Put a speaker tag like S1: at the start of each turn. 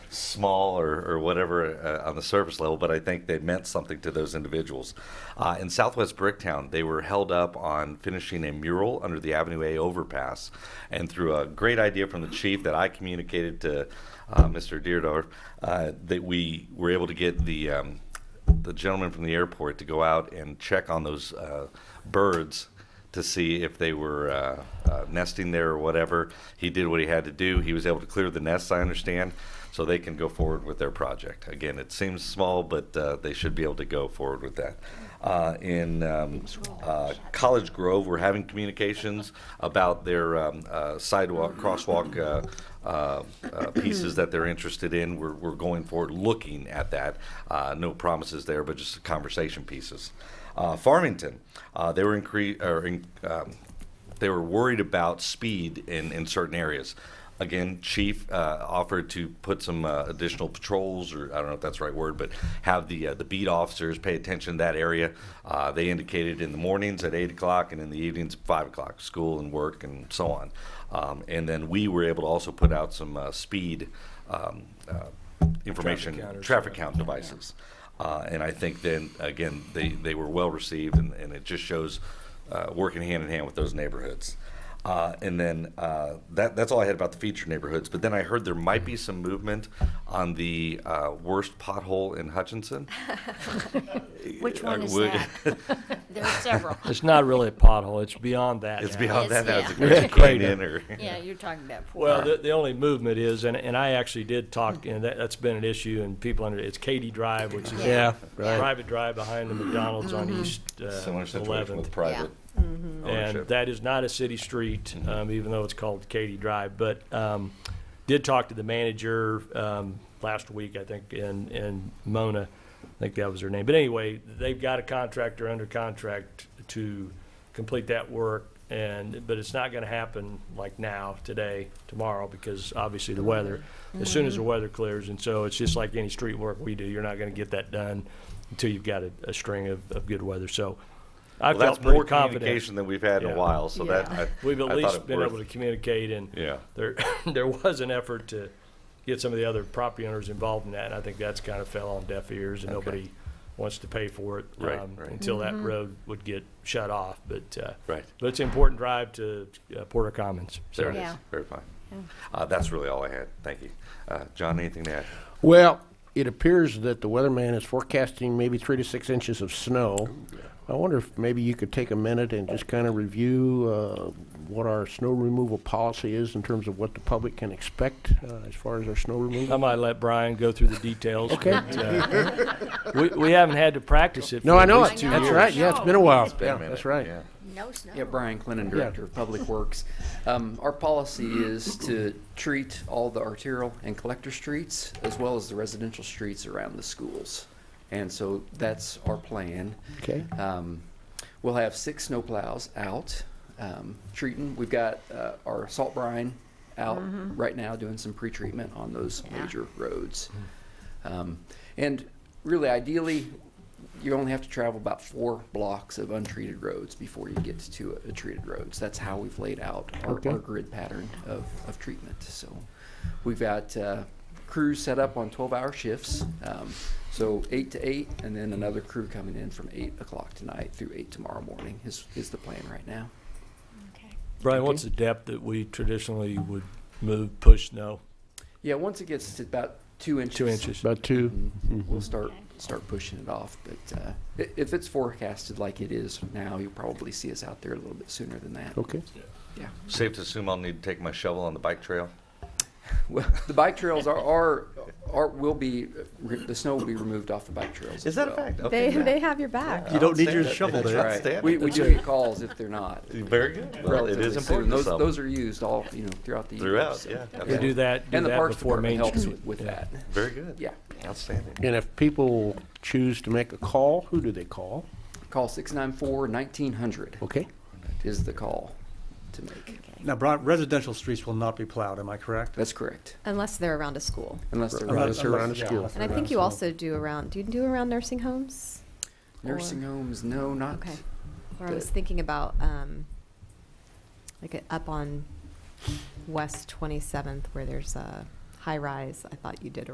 S1: small or, or whatever uh, on the surface level, but I think they meant something to those individuals. Uh, in Southwest Bricktown, they were held up on finishing a mural under the Avenue A overpass. And through a great idea from the chief that I communicated to uh, Mr. Deardorff, uh, that we were able to get the um, the gentleman from the airport to go out and check on those uh, birds to see if they were uh, uh, nesting there or whatever. He did what he had to do. He was able to clear the nests, I understand, so they can go forward with their project. Again, it seems small, but uh, they should be able to go forward with that. Uh, in um, uh, College Grove, we're having communications about their um, uh, sidewalk, crosswalk uh, uh, uh, pieces that they're interested in. We're, we're going forward looking at that. Uh, no promises there, but just conversation pieces. Uh, Farmington, uh, they were incre- or in, um, they were worried about speed in, in certain areas. Again, chief uh, offered to put some uh, additional patrols, or I don't know if that's the right word, but have the uh, the beat officers pay attention to that area. Uh, they indicated in the mornings at eight o'clock and in the evenings at five o'clock, school and work and so on. Um, and then we were able to also put out some uh, speed um, uh, information,
S2: Traffic counters,
S1: traffic
S2: yeah.
S1: count devices. Uh, and I think then, again, they, they were well received, and, and it just shows uh, working hand in hand with those neighborhoods. Uh, and then uh, that, that's all I had about the featured neighborhoods. But then I heard there might be some movement on the uh, worst pothole in Hutchinson. Uh,
S3: Which one is
S1: would-
S3: that? There are several.
S2: It's not really a pothole, it's beyond that.
S1: It's
S2: now.
S1: beyond
S3: Yes,
S1: that. That's a
S3: yeah.
S1: great
S2: Crater.
S1: in or
S3: Yeah, you're talking about poor.
S2: Well, the, the only movement is, and, and I actually did talk, and that, that's been an issue, and people under, it's Katy Drive, which is a
S3: Yeah, right. Mm-hmm.
S2: private drive behind the McDonald's on East uh,
S1: similar situation with
S2: 11th.
S1: private
S2: And
S1: Mm. ownership.
S2: that is not a city street, um, even though it's called Katy Drive, but, um, did talk to the manager, um, last week, I think, and, and Mona, I think that was her name. But anyway, they've got a contractor under contract to complete that work, and, but it's not gonna happen like now, today, tomorrow, because obviously the weather. As soon
S1: Mm-hmm.
S2: as the weather clears, and so it's just like any street work we do, you're not gonna get that done until you've got a, a string of, of good weather, so I
S1: Well, that's
S2: felt
S1: more
S2: more confident.
S1: communication than we've had in
S2: Yeah.
S1: a while. So that
S3: Yeah.
S1: I,
S2: We've at
S1: I thought
S2: least
S1: it
S2: been
S1: worth-
S2: able to communicate, and
S1: Yeah.
S2: there, there was an effort to get some of the other property owners involved in that, and I think that's kind of fell on deaf ears, and
S1: Okay.
S2: nobody wants to pay for it.
S1: Right,
S2: um,
S1: right.
S2: Until that road would get shut off, but, uh,
S1: Right.
S2: but it's an important drive to uh, Porter Commons.
S1: There
S2: So
S1: it is.
S3: Yeah.
S1: Very fine. Uh, that's really all I had. Thank you. Uh, John, anything to add?
S4: Well, it appears that the weatherman is forecasting maybe three to six inches of snow. I wonder if maybe you could take a minute and just kind of review uh, what our snow removal policy is in terms of what the public can expect uh, as far as our snow
S2: I
S4: removal.
S2: might let Brian go through the details.
S4: Okay.
S2: but, uh, We, we haven't had to practice it.
S4: No,
S2: for
S4: I
S2: at
S4: know
S2: least
S4: it.
S2: two
S4: That's
S2: years.
S4: right. Yeah, it's been a while.
S1: Been a
S4: Yeah,
S1: minute.
S4: that's right.
S1: uh, Yeah.
S3: No snow.
S5: Yeah, Brian Clinton,
S4: Yeah.
S5: Director of Public Works. Um, Our policy is to treat all the arterial and collector streets as well as the residential streets around the schools. And so that's our plan.
S4: Okay.
S5: Um, We'll have six snowplows out um, treating. We've got uh, our salt brine out right now doing some pre-treatment on those major roads.
S4: Mm.
S5: Um, And really ideally, you only have to travel about four blocks of untreated roads before you get to a, a treated roads. That's how we've laid out our,
S4: Okay.
S5: our grid pattern of, of treatment. So we've got uh, crews set up on 12 hour shifts. Um, so 8 to 8, and then another crew coming in from 8 o'clock tonight through 8 tomorrow morning is, is the plan right now.
S3: Okay.
S2: Brian, what's the depth that we traditionally would move, push snow?
S5: Yeah, once it gets to about two inches,
S2: Two inches.
S4: About two.
S5: mm,
S2: Mm-hmm.
S5: we'll start
S3: Okay.
S5: start pushing it off. But uh, i- if it's forecasted like it is now, you'll probably see us out there a little bit sooner than that.
S4: Okay.
S5: Yeah.
S1: Safe to assume I'll need to take my shovel on the bike trail.
S5: Well, the bike trails are, are, are, will be, re- the snow will be removed off the bike trails. as well.
S6: They,
S1: Okay.
S6: they have your back.
S1: You don't need your shovel
S5: That's right. We, we do get calls if they're not.
S1: Very good. Well, it
S5: relatively
S1: is
S5: soon.
S1: important to
S5: Those,
S1: some.
S5: those are used all, you know, throughout the year.
S1: Throughout,
S5: so-
S1: yeah.
S2: We do that, do
S5: And the
S2: that
S5: Parks
S2: before
S5: Department
S2: Main
S5: helps
S2: Street.
S5: with, with that.
S1: Very good.
S5: Yeah.
S1: Outstanding.
S4: And if people choose to make a call, who do they call?
S5: Call six nine four nineteen hundred
S4: Okay.
S5: is the call to make.
S7: Now, Brian, residential streets will not be plowed, am I correct?
S5: That's correct,
S6: Unless they're around a school.
S5: unless they're
S7: Unless-
S4: Unless they're around a
S7: unless- yeah,
S4: school.
S7: unless
S6: And I
S7: they're
S6: think
S7: around
S6: you
S7: a
S6: also do around, do you do around nursing homes?
S5: nursing
S6: Or-
S5: homes, no, not,
S6: Okay. Or I
S5: the-
S6: was thinking about, um, like uh, up on West 27th where there's a high rise. I thought you did